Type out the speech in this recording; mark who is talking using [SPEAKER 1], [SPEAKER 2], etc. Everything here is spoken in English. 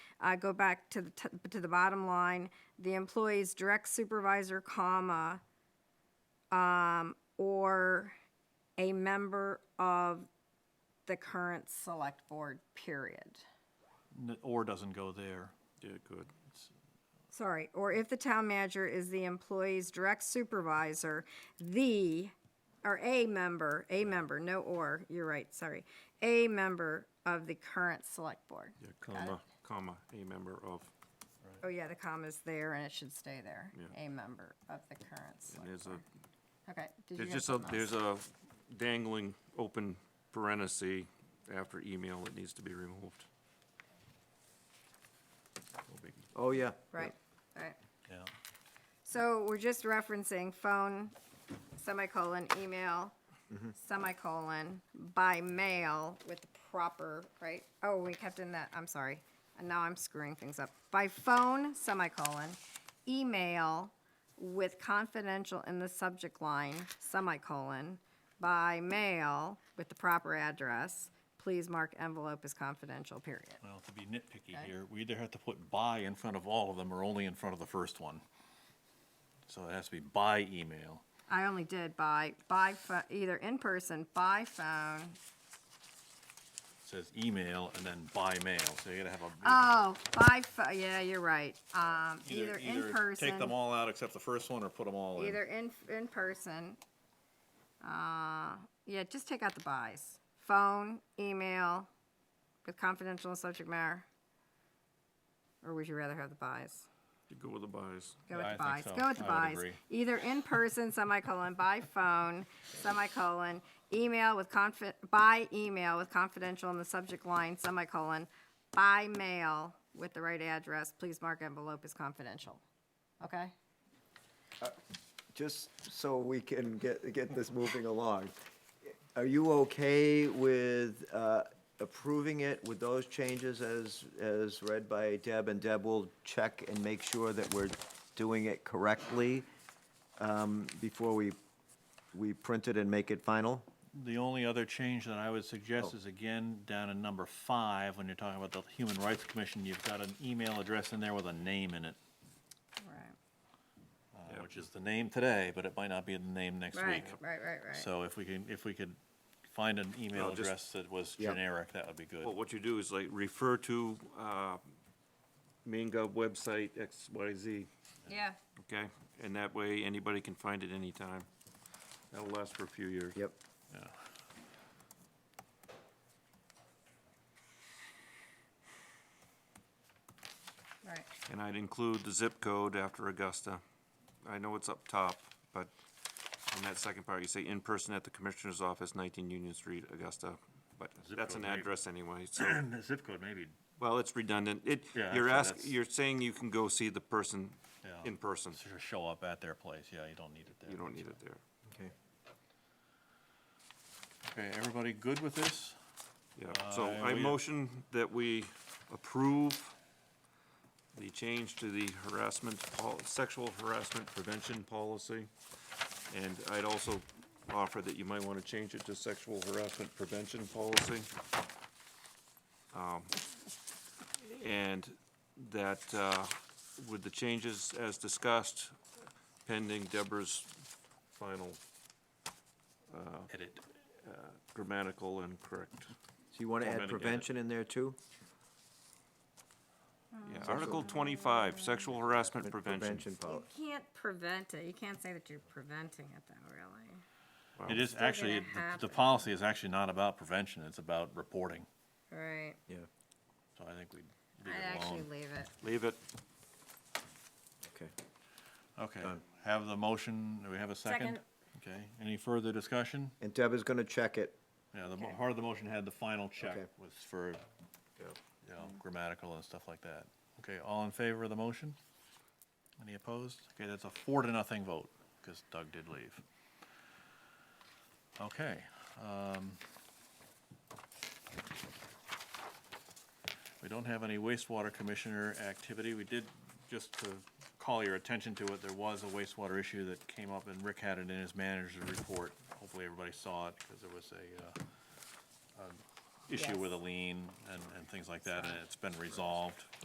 [SPEAKER 1] uh, go back to the, t- to the bottom line, the employee's direct supervisor, comma, um, or a member of the current select board, period.
[SPEAKER 2] N- Or doesn't go there.
[SPEAKER 3] Yeah, good.
[SPEAKER 1] Sorry, or if the town manager is the employee's direct supervisor, the, or a member, a member, no or, you're right, sorry, a member of the current select board.
[SPEAKER 3] Yeah, comma, comma, a member of,
[SPEAKER 1] Oh, yeah, the comma's there and it should stay there. A member of the current
[SPEAKER 3] and
[SPEAKER 1] select.
[SPEAKER 3] there's a,
[SPEAKER 1] Okay, did you
[SPEAKER 3] there's
[SPEAKER 1] have
[SPEAKER 3] just a,
[SPEAKER 1] something else?
[SPEAKER 3] there's a dangling open parenthesis after email that needs to be removed. No biggie.
[SPEAKER 4] Oh, yeah.
[SPEAKER 1] Right, right.
[SPEAKER 2] Yeah.
[SPEAKER 1] So we're just referencing phone, semicolon, email, semicolon, by mail with the proper, right? Oh, we kept in that, I'm sorry. And now I'm screwing things up. By phone, semicolon, email with confidential in the subject line, semicolon, by mail with the proper address, please mark envelope as confidential, period.
[SPEAKER 2] Well, to be nitpicky here, we either have to put by in front of all of them or only in front of the first one. So it has to be by email.
[SPEAKER 1] I only did by, by, pho- either in person, by phone,
[SPEAKER 2] It says email and then by mail, so you gotta have a.
[SPEAKER 1] Oh, by, pho- yeah, you're right. Um, either in
[SPEAKER 2] Take them
[SPEAKER 1] person,
[SPEAKER 2] all out except the first one or put them all in.
[SPEAKER 1] either in, in person. Uh, yeah, just take out the buys. Phone, email, with confidential and subject matter. Or would you rather have the buys?
[SPEAKER 3] You go with the buys.
[SPEAKER 1] Go
[SPEAKER 2] Yeah,
[SPEAKER 1] with the
[SPEAKER 2] I
[SPEAKER 1] buys,
[SPEAKER 2] think so.
[SPEAKER 1] go with the
[SPEAKER 2] I would
[SPEAKER 1] buys.
[SPEAKER 2] agree.
[SPEAKER 1] Either in person, semicolon, by phone, semicolon, email with confi, by email with confidential in the subject line, semicolon, by mail with the right address, please mark envelope as confidential. Okay?
[SPEAKER 4] Just so we can get, get this moving along. Are you okay with uh, approving it with those changes as, as read by Deb? And Deb will check and make sure that we're doing it correctly um, before we, we print it and make it final?
[SPEAKER 2] The only other change that I would suggest is again, down in number five, when you're talking about the Human Rights Commission, you've got an email address in there with a name in it,
[SPEAKER 1] Right,
[SPEAKER 2] uh, which is the name today, but it might not be the name next
[SPEAKER 1] right,
[SPEAKER 2] week.
[SPEAKER 1] right, right, right.
[SPEAKER 2] So if we can, if we could find an email
[SPEAKER 3] Well, just-
[SPEAKER 2] address that was
[SPEAKER 4] Yep.
[SPEAKER 2] generic, that would be good.
[SPEAKER 3] But what you do is like refer to, uh, main gov website XYZ,
[SPEAKER 1] Yeah,
[SPEAKER 3] okay? And that way, anybody can find it anytime. That'll last for a few years.
[SPEAKER 4] Yep.
[SPEAKER 2] Yeah.
[SPEAKER 1] right.
[SPEAKER 3] And I'd include the zip code after Augusta. I know it's up top, but in that second part, you say in person at the commissioner's office, nineteen Union Street, Augusta. But
[SPEAKER 2] Zip
[SPEAKER 3] that's an
[SPEAKER 2] code, right.
[SPEAKER 3] address anyway, so,
[SPEAKER 2] The zip code maybe.
[SPEAKER 3] well, it's redundant. It,
[SPEAKER 2] Yeah,
[SPEAKER 3] you're
[SPEAKER 2] actually,
[SPEAKER 3] ask,
[SPEAKER 2] that's-
[SPEAKER 3] you're saying you can go see the person
[SPEAKER 2] Yeah.
[SPEAKER 3] in person.
[SPEAKER 2] Sort of Show up at their place, yeah, you don't need it there.
[SPEAKER 3] You don't need it there.
[SPEAKER 4] Okay.
[SPEAKER 2] Okay, everybody good with this?
[SPEAKER 3] Yeah, so
[SPEAKER 2] Uh,
[SPEAKER 3] I
[SPEAKER 2] we-
[SPEAKER 3] motion that we approve the change to the harassment, pol- sexual harassment prevention policy. And I'd also offer that you might want to change it to sexual harassment prevention policy. Um, And that, uh, with the changes as discussed, pending Deborah's final Oh.
[SPEAKER 2] Edit.
[SPEAKER 3] grammatical and correct.
[SPEAKER 4] So you want to add
[SPEAKER 3] Formatting, yeah.
[SPEAKER 4] prevention in there too?
[SPEAKER 3] Yeah, Article twenty-five, sexual harassment prevention.
[SPEAKER 4] policy.
[SPEAKER 1] You can't prevent it, you can't say that you're preventing it though, really.
[SPEAKER 2] It is
[SPEAKER 1] gonna
[SPEAKER 2] actually, the- the
[SPEAKER 1] happen.
[SPEAKER 2] policy is actually not about prevention, it's about reporting,
[SPEAKER 1] Right,
[SPEAKER 4] Yeah,
[SPEAKER 2] so I think we'd leave
[SPEAKER 1] I'd
[SPEAKER 2] it
[SPEAKER 1] actually
[SPEAKER 2] alone.
[SPEAKER 1] leave it.
[SPEAKER 3] Leave it.
[SPEAKER 4] okay.
[SPEAKER 2] Okay,
[SPEAKER 4] Done.
[SPEAKER 2] have the motion, do we have a second?
[SPEAKER 1] Second.
[SPEAKER 2] Okay, any further discussion?
[SPEAKER 4] And Deb is going to check it.
[SPEAKER 2] Yeah, the, mo-
[SPEAKER 1] Okay.
[SPEAKER 2] part of the motion had the final check
[SPEAKER 4] Okay.
[SPEAKER 2] was for, you know, grammatical and stuff like that. Okay, all in favor of the motion? Any opposed? Okay, that's a four to nothing vote, because Doug did leave. Okay, um. We don't have any wastewater commissioner activity. We did, just to call your attention to it, there was a wastewater issue that came up and Rick had it in his manager's report. Hopefully everybody saw it, because there was a, uh, an issue with a lien and, and things like that, and it's been resolved.